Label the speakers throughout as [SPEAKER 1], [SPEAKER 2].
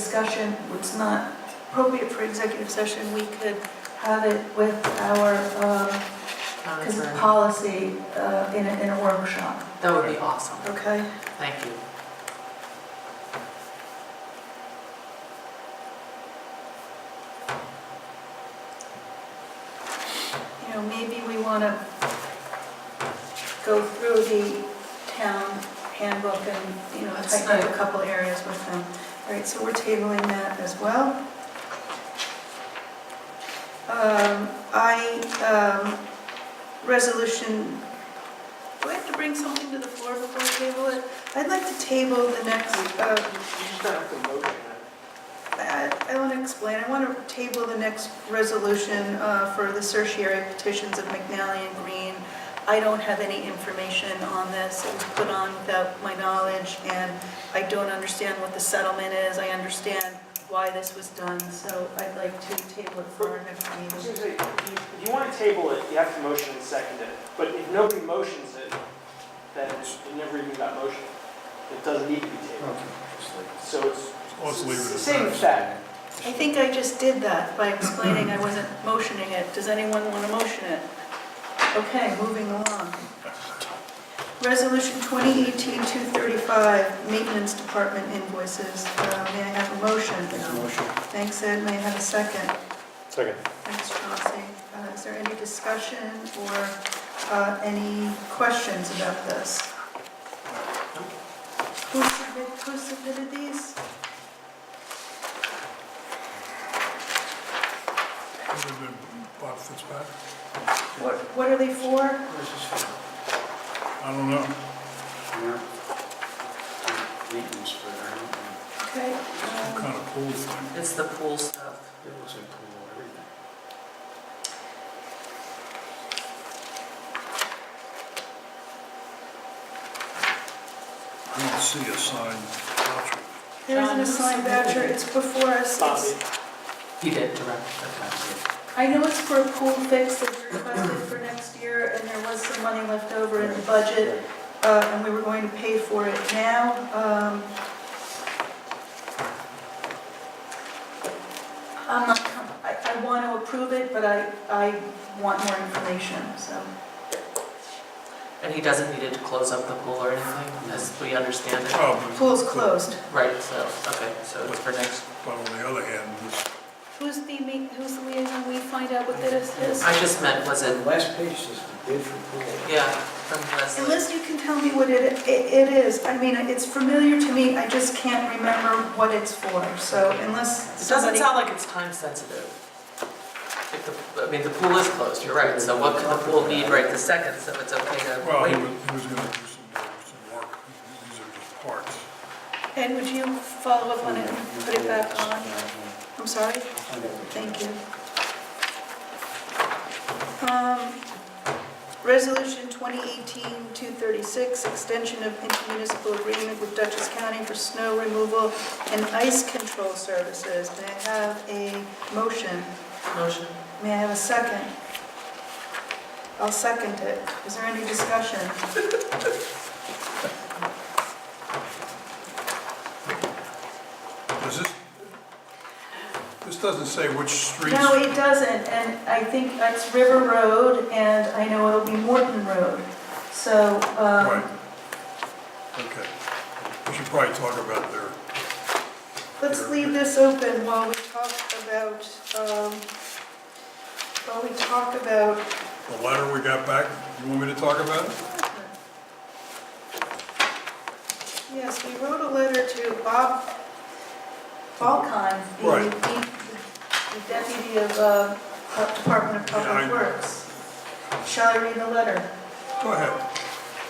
[SPEAKER 1] discussion, it's not appropriate for executive session, we could have it with our, um,
[SPEAKER 2] Comments
[SPEAKER 1] cause
[SPEAKER 2] or-
[SPEAKER 1] policy, uh, in a, in a workshop,
[SPEAKER 2] That would be awesome.
[SPEAKER 1] okay?
[SPEAKER 2] Thank you.
[SPEAKER 1] You know, maybe we wanna go through the town handbook and, you know,
[SPEAKER 2] That's
[SPEAKER 1] tighten up a
[SPEAKER 2] right.
[SPEAKER 1] couple areas with them. All right, so we're tabling that as well. Um, I, um, resolution, do I have to bring something to the floor before we table it? I'd like to table the next, uh, I I want to explain, I want to table the next resolution uh, for the certiorari petitions of McNally and Green. I don't have any information on this, it was put on without my knowledge, and I don't understand what the settlement is, I understand why this was done, so I'd like to table it for our next meeting.
[SPEAKER 3] Susan, you- you want to table it, you have to motion and second it, but if nobody motions it, then it never even got motioned. It doesn't need to be tabled, so it's,
[SPEAKER 4] Let's leave it as
[SPEAKER 3] Same
[SPEAKER 4] that.
[SPEAKER 3] fact.
[SPEAKER 1] I think I just did that by explaining I wasn't motioning it. Does anyone want to motion it? Okay, moving along. Resolution 2018-235, Maintenance Department invoices. Uh, May I have a motion? Thanks, Ed. May I have a second?
[SPEAKER 5] Second.
[SPEAKER 1] Thanks, Chauncey. Uh, Is there any discussion or uh, any questions about this? Who submitted, who submitted these?
[SPEAKER 4] Would have been Bob Fitzpatrick.
[SPEAKER 1] What what are they for?
[SPEAKER 4] I don't know.
[SPEAKER 5] Maintenance for, I don't know,
[SPEAKER 1] Okay.
[SPEAKER 4] Some
[SPEAKER 1] um,
[SPEAKER 4] kind of pool thing.
[SPEAKER 2] It's the pool stuff.
[SPEAKER 5] it looks like pool, everything.
[SPEAKER 4] I don't see a sign.
[SPEAKER 1] There isn't a signed voucher, it's before us.
[SPEAKER 3] Bobby,
[SPEAKER 1] It's-
[SPEAKER 2] You did direct that.
[SPEAKER 1] I know it's for a pool fix that we requested for next year, and there was some money left over in the budget, uh, and we were going to pay for it now. Um, I'm not, com- I, I want to approve it, but I, I want more information, so.
[SPEAKER 2] And he doesn't need it to close up the pool or anything, as we understand it.
[SPEAKER 4] Probably,
[SPEAKER 1] Pool's closed.
[SPEAKER 2] Right, so, okay, so it's for next.
[SPEAKER 4] but on the other hand, this
[SPEAKER 1] Who's the, ma- who's the liaison, we find out what this is?
[SPEAKER 2] I just meant, was
[SPEAKER 5] The
[SPEAKER 2] it,
[SPEAKER 5] last page is the bid for pool.
[SPEAKER 2] yeah, from Leslie.
[SPEAKER 1] Unless you can tell me what it, it it is, I mean, it's familiar to me, I just can't remember what it's for, so unless
[SPEAKER 2] It doesn't
[SPEAKER 1] somebody...
[SPEAKER 2] sound like it's time sensitive. If the, I mean, the pool is closed, you're right, so what could the pool need right this second, so it's okay to
[SPEAKER 4] Well, he
[SPEAKER 2] wait.
[SPEAKER 4] was, he was gonna do some, uh, some work, these are just parts.
[SPEAKER 1] Ed, would you follow up on it and put it back on? I'm sorry? Thank you. Um, Resolution 2018-236, extension of intermunicipal agreement with Dutchess County for snow removal and ice control services. May I have a motion?
[SPEAKER 2] Motion?
[SPEAKER 1] May I have a second? I'll second it. Is there any discussion?
[SPEAKER 4] Does this, this doesn't say which streets,
[SPEAKER 1] No, it doesn't, and I think that's River Road, and I know it'll be Morton Road. So, um,
[SPEAKER 4] right? Okay. We should probably talk about their,
[SPEAKER 1] let's leave this open while we talk about, um, while we talk about,
[SPEAKER 4] the letter we got back. You want me to talk about it?
[SPEAKER 1] yes, we wrote a letter to Bob Balcon, the- E,
[SPEAKER 4] Right.
[SPEAKER 1] the the deputy of uh, Department of
[SPEAKER 4] Yeah,
[SPEAKER 1] Public
[SPEAKER 4] I-
[SPEAKER 1] Works. Shall I read the letter?
[SPEAKER 4] Go ahead.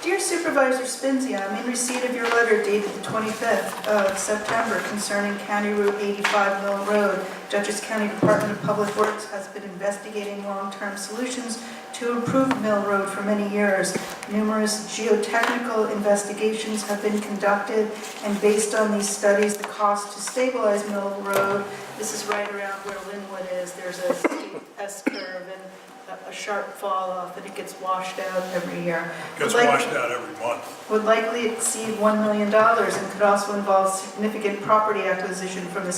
[SPEAKER 1] Dear Supervisor Spinzia, I'm in receipt of your letter dated the 25th of September concerning County Route 85 Mill Road. Dutchess County Department of Public Works has been investigating long-term solutions to improve Mill Road for many years. Numerous geotechnical investigations have been conducted, and based on these studies, the cost to stabilize Mill Road, this is right around where Linwood is, there's a steep S-curve and a- a sharp fall off, and it gets washed out every year
[SPEAKER 4] Gets
[SPEAKER 1] Like-
[SPEAKER 4] washed out every month.
[SPEAKER 1] would likely exceed $1 million and could also involve significant property acquisition from the